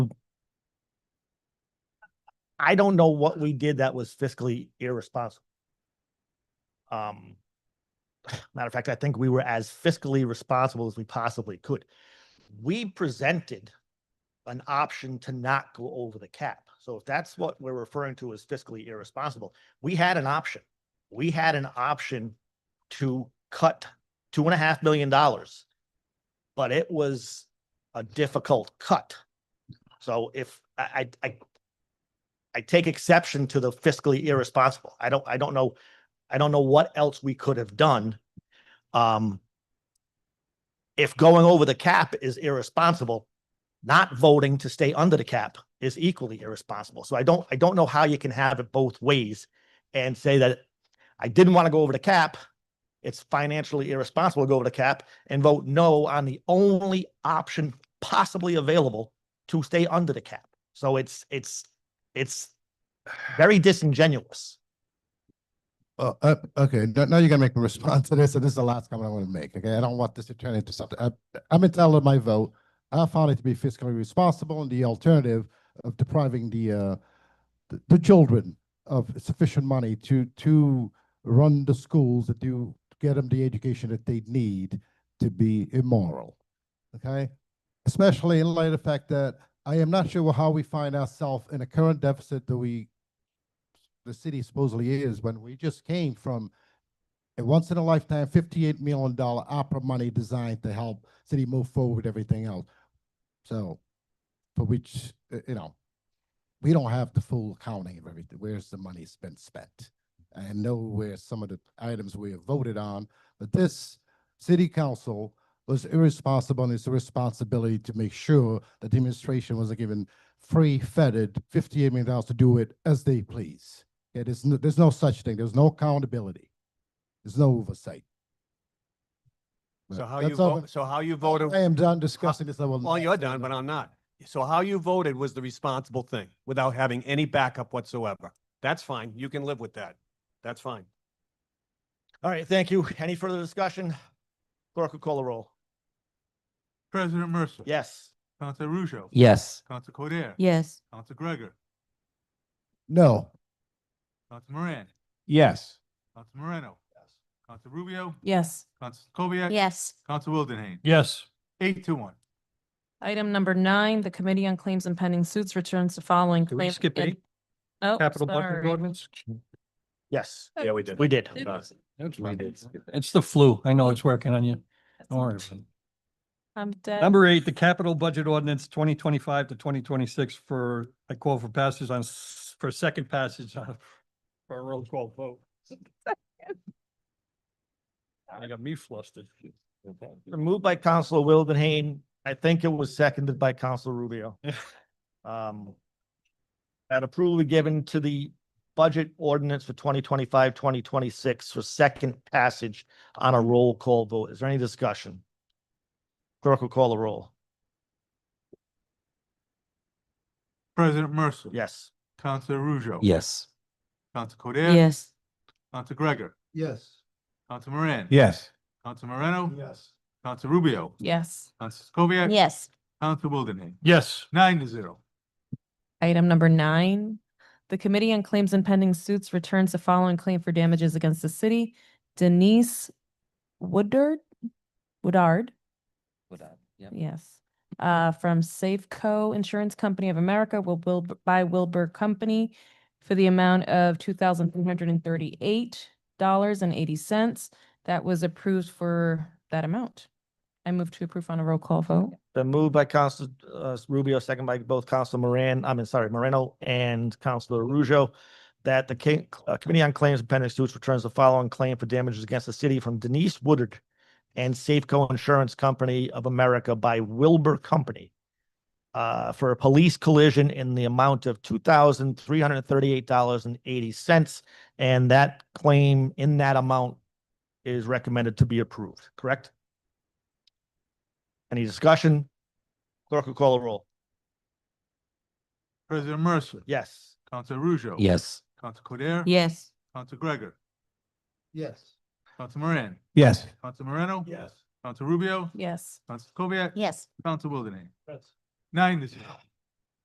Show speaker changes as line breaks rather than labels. I don't know what we did that was fiscally irresponsible. Um, matter of fact, I think we were as fiscally responsible as we possibly could. We presented an option to not go over the cap. So if that's what we're referring to as fiscally irresponsible, we had an option. We had an option to cut two and a half million dollars. But it was a difficult cut. So if I, I, I I take exception to the fiscally irresponsible. I don't, I don't know, I don't know what else we could have done. Um, if going over the cap is irresponsible, not voting to stay under the cap is equally irresponsible. So I don't, I don't know how you can have it both ways and say that I didn't want to go over the cap. It's financially irresponsible to go over the cap and vote no on the only option possibly available to stay under the cap. So it's, it's, it's very disingenuous.
Well, uh, okay, now now you're gonna make a response to this, and this is the last comment I want to make, okay? I don't want this to turn into something, I, I'm entitled to my vote. I found it to be fiscally responsible and the alternative of depriving the, uh, the, the children of sufficient money to, to run the schools, to do, get them the education that they need to be immoral, okay? Especially in light of the fact that I am not sure how we find ourselves in a current deficit that we the city supposedly is when we just came from a once in a lifetime fifty-eight million dollar opera money designed to help city move forward with everything else. So, for which, uh, you know, we don't have the full accounting of everything. Where's the money's been spent? I know where some of the items we have voted on, but this city council was irresponsible and it's a responsibility to make sure that the administration wasn't given free fetid fifty-eight million dollars to do it as they please. Yeah, there's no, there's no such thing. There's no accountability. There's no oversight.
So
But
how you
that's all-
vote, so how you voted,
I am done discussing this. I will.
well, you're done, but I'm not. So how you voted was the responsible thing without having any backup whatsoever. That's fine. You can live with that. That's fine.
All right, thank you. Any further discussion? Clerk will call the roll.
President Mercer.
Yes.
Council Ruzo.
Yes.
Council Codere.
Yes,
Council Gregor.
No,
Council Moran.
Yes.
Council Moreno. Yes. Council Rubio.
yes.
Council Kubiak.
Yes.
Council Wildenhain.
Yes.
Eight to one.
Item number nine, the Committee on Claims and Pending Suits returns the following.
Did we
claim
skip
and-
eight?
Oh,
Capital budget
sorry.
ordinance?
Yes,
Yeah, we did.
we did.
Did- Yes.
It's the flu. I know it's working on you. Don't worry. about it.
I'm dead.
Number eight, the capital budget ordinance twenty twenty-five to twenty twenty-six for, I call for passage on, s- for second passage on, for a roll call vote. I got me flustered.
Moved by Counselor Wildenhain. I think it was seconded by Counselor Rubio. Um, that approval be given to the budget ordinance for 2025-2026 for second passage on a roll call vote. Is there any discussion? Clerk will call the roll.
President Mercer.
Yes.
Council Ruzo.
Yes.
Council Codere.
Yes,
Council Gregor.
yes.
Council Moran.
Yes.
Council Moreno.
Yes.
Council Rubio.
yes.
Council Kubiak.
Yes.
Council Wildenhain.
Yes.
Nine to zero.
Item number nine, the Committee on Claims and Pending Suits returns the following claim for damages against the city. Denise Woodard, Woodard, yes, uh, from Safeco Insurance Company of America will Wil- by Wilbur Company for the amount of two thousand three hundred and thirty-eight dollars and eighty cents. That was approved for that amount. I move to approve on a roll call vote.
Been moved by Council uh, Rubio, second by both Council Moran, I mean, sorry, Moreno and Councilor Rujo, that the Ca- uh, Committee on Claims and Pending Suits returns the following claim for damages against the city from Denise Woodard and Safeco Insurance Company of America by Wilbur Company uh, for a police collision in the amount of two thousand three hundred thirty-eight dollars and eighty cents. And that claim in that amount is recommended to be approved, correct? Any discussion? Clerk will call a roll.
President Mercer.
Yes.
Council Ruzo.
Yes.
Council Codere.
Yes.
Council Gregor.
Yes.
Council Moran.
Yes.
Council Moreno. Council Rubio.
Yes.
Council Kubiak.
Yes.
Council Wildenhain. Nine to zero.